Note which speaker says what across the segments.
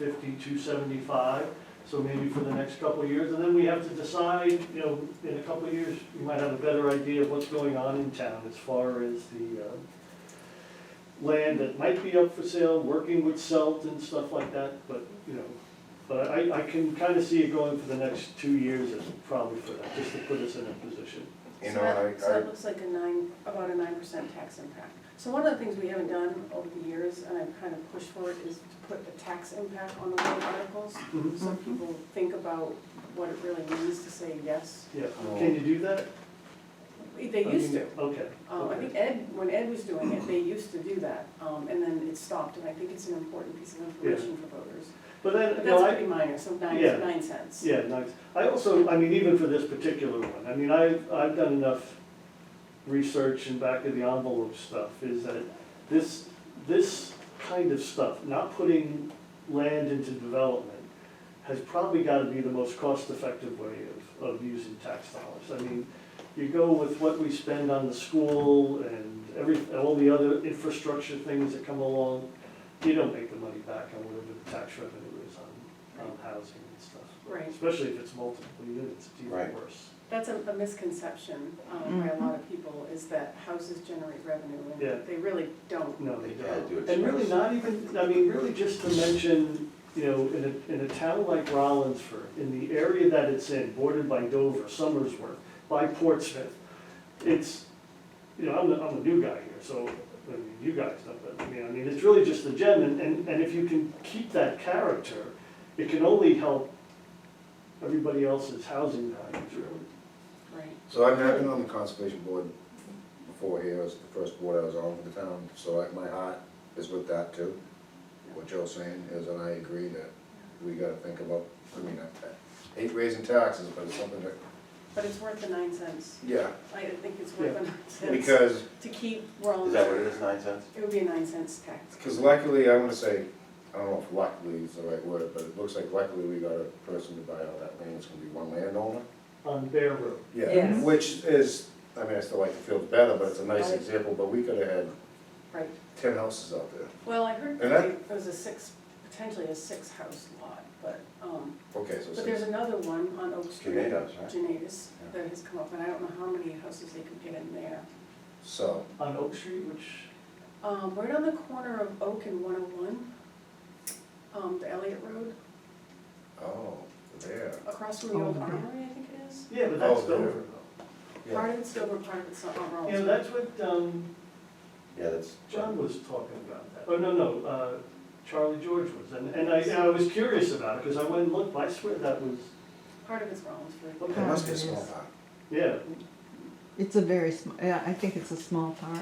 Speaker 1: fifty, two seventy-five, so maybe for the next couple of years, and then we have to decide, you know, in a couple of years, we might have a better idea of what's going on in town as far as the, uh, land that might be up for sale, working with Selt and stuff like that, but, you know, but I, I can kinda see it going for the next two years is probably for that, just to put us in a position.
Speaker 2: You
Speaker 3: So
Speaker 2: know,
Speaker 3: that- So
Speaker 2: I, I,
Speaker 3: that looks like a nine, about a nine percent tax impact. So one of the things we haven't done over the years, and I've kind of pushed for it, is to put a tax impact on the warrant articles.
Speaker 1: Mhm.
Speaker 3: So people think about what it really means to say yes.
Speaker 1: Yeah, can you do that? Oh,
Speaker 3: They used to.
Speaker 1: Okay.
Speaker 3: Um, I think Ed, when Ed was doing it, they used to do that, um, and then it stopped, and I think it's an important piece of information for voters.
Speaker 1: But then,
Speaker 3: But
Speaker 1: you know,
Speaker 3: that's
Speaker 1: I,
Speaker 3: pretty minor, so nine,
Speaker 1: Yeah.
Speaker 3: nine cents.
Speaker 1: Yeah, nice. I also, I mean, even for this particular one, I mean, I, I've done enough research and back of the envelope stuff, is that this, this kind of stuff, not putting land into development, has probably gotta be the most cost-effective way of, of using tax dollars. I mean, you go with what we spend on the school and every, and all the other infrastructure things that come along, you don't make the money back on whatever the tax revenue is on, on housing and stuff.
Speaker 3: Right.
Speaker 1: Especially if it's multiple units, it's even
Speaker 2: Right.
Speaker 1: worse.
Speaker 3: That's a a misconception um, by a lot of people, is that houses generate revenue,
Speaker 1: Mm-hmm. Yeah.
Speaker 3: and they really don't.
Speaker 1: No, they
Speaker 2: They gotta do
Speaker 1: don't.
Speaker 2: it
Speaker 1: And really
Speaker 2: first.
Speaker 1: not even, I mean, really just to mention, you know, in a, in a town like Rollinsford, in the area that it's in, bordered by Dover, Somersworth, by Portsmouth, it's, you know, I'm the, I'm the new guy here, so, I mean, you guys know, but, I mean, I mean, it's really just the gem, and, and, and if you can keep that character, it can only help everybody else's housing values, really.
Speaker 3: Right.
Speaker 4: So I've I've been on the conservation board before here, it was the first board I was on for the town, so I- my heart is with that too. What Joe's saying is, and I agree that we gotta think about, I mean, I I hate raising taxes, but it's something that,
Speaker 3: But it's worth the nine cents.
Speaker 4: yeah,
Speaker 3: I think it's worth the nine cents
Speaker 4: because,
Speaker 3: to keep Rollins.
Speaker 2: is that what it is, nine cents?
Speaker 3: It would be a nine cents tax.
Speaker 4: because luckily, I wanna say, I don't know if luckily is the right word, but it looks like luckily we got a person to buy all that land, it's gonna be one landowner.
Speaker 1: On Bear Road.
Speaker 4: Yeah,
Speaker 5: Yes.
Speaker 4: which is, I mean, I still like the field better, but it's a nice example, but we could have had
Speaker 3: Right.
Speaker 4: ten houses out there.
Speaker 3: Well, I heard
Speaker 4: And that-
Speaker 3: that there was a six, potentially a six-house lot, but, um,
Speaker 4: Okay, so.
Speaker 3: but there's another one on Oak Street.
Speaker 2: Tornadoes, right?
Speaker 3: Genadas,
Speaker 2: Yeah.
Speaker 3: that has come up, and I don't know how many houses they could get in there.
Speaker 4: So,
Speaker 1: On Oak Street, which
Speaker 3: Um, right on the corner of Oak and one oh one, um, the Elliott Road,
Speaker 4: oh, there.
Speaker 3: across from the old
Speaker 5: Oh, okay.
Speaker 3: armory, I think it is.
Speaker 1: Yeah, but that's
Speaker 4: Oh, there.
Speaker 1: Dover
Speaker 4: Yeah,
Speaker 3: Part of it's Dover, part of it's not on
Speaker 1: though.
Speaker 3: Rollins.
Speaker 1: You know, that's what, um,
Speaker 2: Yeah, that's.
Speaker 1: John was talking about that. Oh, no, no, uh, Charlie George was, and, and I, and I was curious about it, because I went and looked, I swear that was,
Speaker 3: Part of it's Rollinsford.
Speaker 4: it must be a small
Speaker 5: Yes.
Speaker 4: pot.
Speaker 1: yeah,
Speaker 5: It's a very small, yeah, I think it's a small part.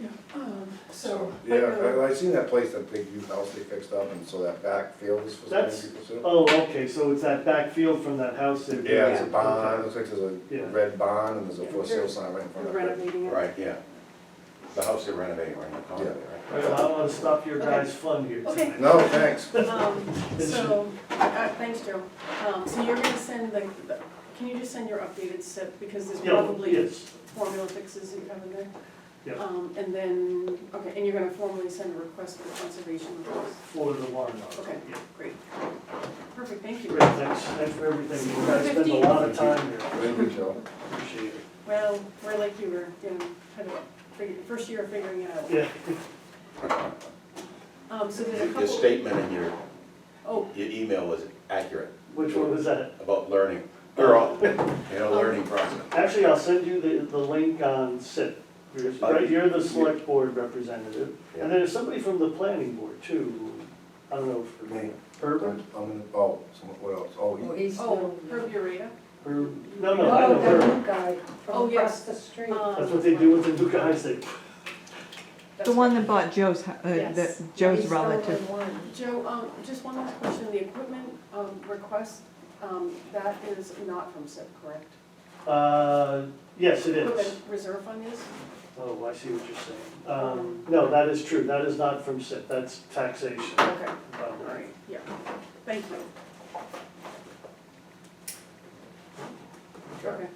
Speaker 3: Yeah. Um, so,
Speaker 4: So,
Speaker 3: but uh,
Speaker 4: yeah,
Speaker 3: no,
Speaker 4: I, I seen that place, that big new house they fixed up, and so that backfield is for some
Speaker 1: That's-
Speaker 4: people too.
Speaker 1: oh, okay, so it's that back field from that house there.
Speaker 4: Yeah, it's a
Speaker 1: Okay.
Speaker 4: barn, it looks like there's
Speaker 1: Yeah.
Speaker 4: a red barn, and there's a
Speaker 3: Yeah.
Speaker 4: for sale sign right in front
Speaker 3: we're
Speaker 4: of it.
Speaker 3: renovating it.
Speaker 2: Right, yeah. The house they're renovating right now, calling it,
Speaker 1: All right, well, I don't wanna stop your
Speaker 3: Okay.
Speaker 1: guys' fun here
Speaker 3: Okay.
Speaker 1: tonight.
Speaker 4: No, thanks.
Speaker 3: Um, so, uh, thanks, Joe. Um, so you're gonna send the, the- can you just send your updated SIP, because there's
Speaker 1: Yeah,
Speaker 3: probably
Speaker 1: yes,
Speaker 3: formula fixes that you have in there?
Speaker 1: Yeah.
Speaker 3: Um, and then, okay, and you're gonna formally send a request for conservation request.
Speaker 1: for the warrant article.
Speaker 3: Okay.
Speaker 1: Yeah.
Speaker 3: Great. Perfect, thank you.
Speaker 1: Great, thanks, thanks for everything, you guys spend a lot of time here,
Speaker 4: Thank you, Joe.
Speaker 1: appreciate it.
Speaker 3: Well, we're like you were, you know, kind of, fig- first year of figuring it out.
Speaker 1: Yeah,
Speaker 3: Um, so there's a
Speaker 2: right? Your
Speaker 3: couple,
Speaker 2: statement in your,
Speaker 3: oh,
Speaker 2: your email was accurate
Speaker 1: which one was that?
Speaker 2: about learning, they're all, in a learning process.
Speaker 1: Actually, I'll send you the, the link on SIP. You're- Right, you're the select board representative, and then there's somebody from the planning board too, I don't know if. her name-
Speaker 4: I'm
Speaker 1: Herb?
Speaker 4: gonna, oh, someone- what else? Oh,
Speaker 6: Oh,
Speaker 4: you-
Speaker 6: he's
Speaker 3: oh,
Speaker 6: the-
Speaker 3: Herb Ureta?
Speaker 1: Herb, no, no, I know
Speaker 6: No, the
Speaker 1: Herb,
Speaker 6: new guy
Speaker 3: Oh,
Speaker 6: from
Speaker 3: yes.
Speaker 6: across the street.
Speaker 3: Um,
Speaker 1: that's what they do with the new guys, they,
Speaker 3: that's
Speaker 5: The one that bought Joe's, hu- uh,
Speaker 3: Yes.
Speaker 5: that Joe's
Speaker 6: He's the only
Speaker 5: relative.
Speaker 6: one.
Speaker 3: Joe, um, just one last question, the equipment, um, request, um, that is not from SIP, correct?
Speaker 1: uh, yes, it is.
Speaker 3: Equipment reserve fund is?
Speaker 1: Oh, I see what you're saying. Um, no, that is true, that is not from SIP, that's taxation.
Speaker 3: Okay, all
Speaker 1: Um,
Speaker 3: right, yeah, thank you.
Speaker 4: Okay.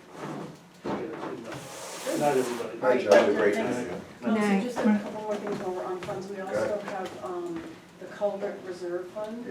Speaker 1: yeah, good enough.
Speaker 3: Good.
Speaker 1: Not everybody.
Speaker 4: Hi,
Speaker 3: Right,
Speaker 4: Joe.
Speaker 2: Have a great
Speaker 3: Thanks.
Speaker 2: night.
Speaker 3: Um, so
Speaker 5: Night.
Speaker 3: just a couple more things while we're on funds, we also
Speaker 4: Okay.
Speaker 3: have, um, the culvert reserve fund.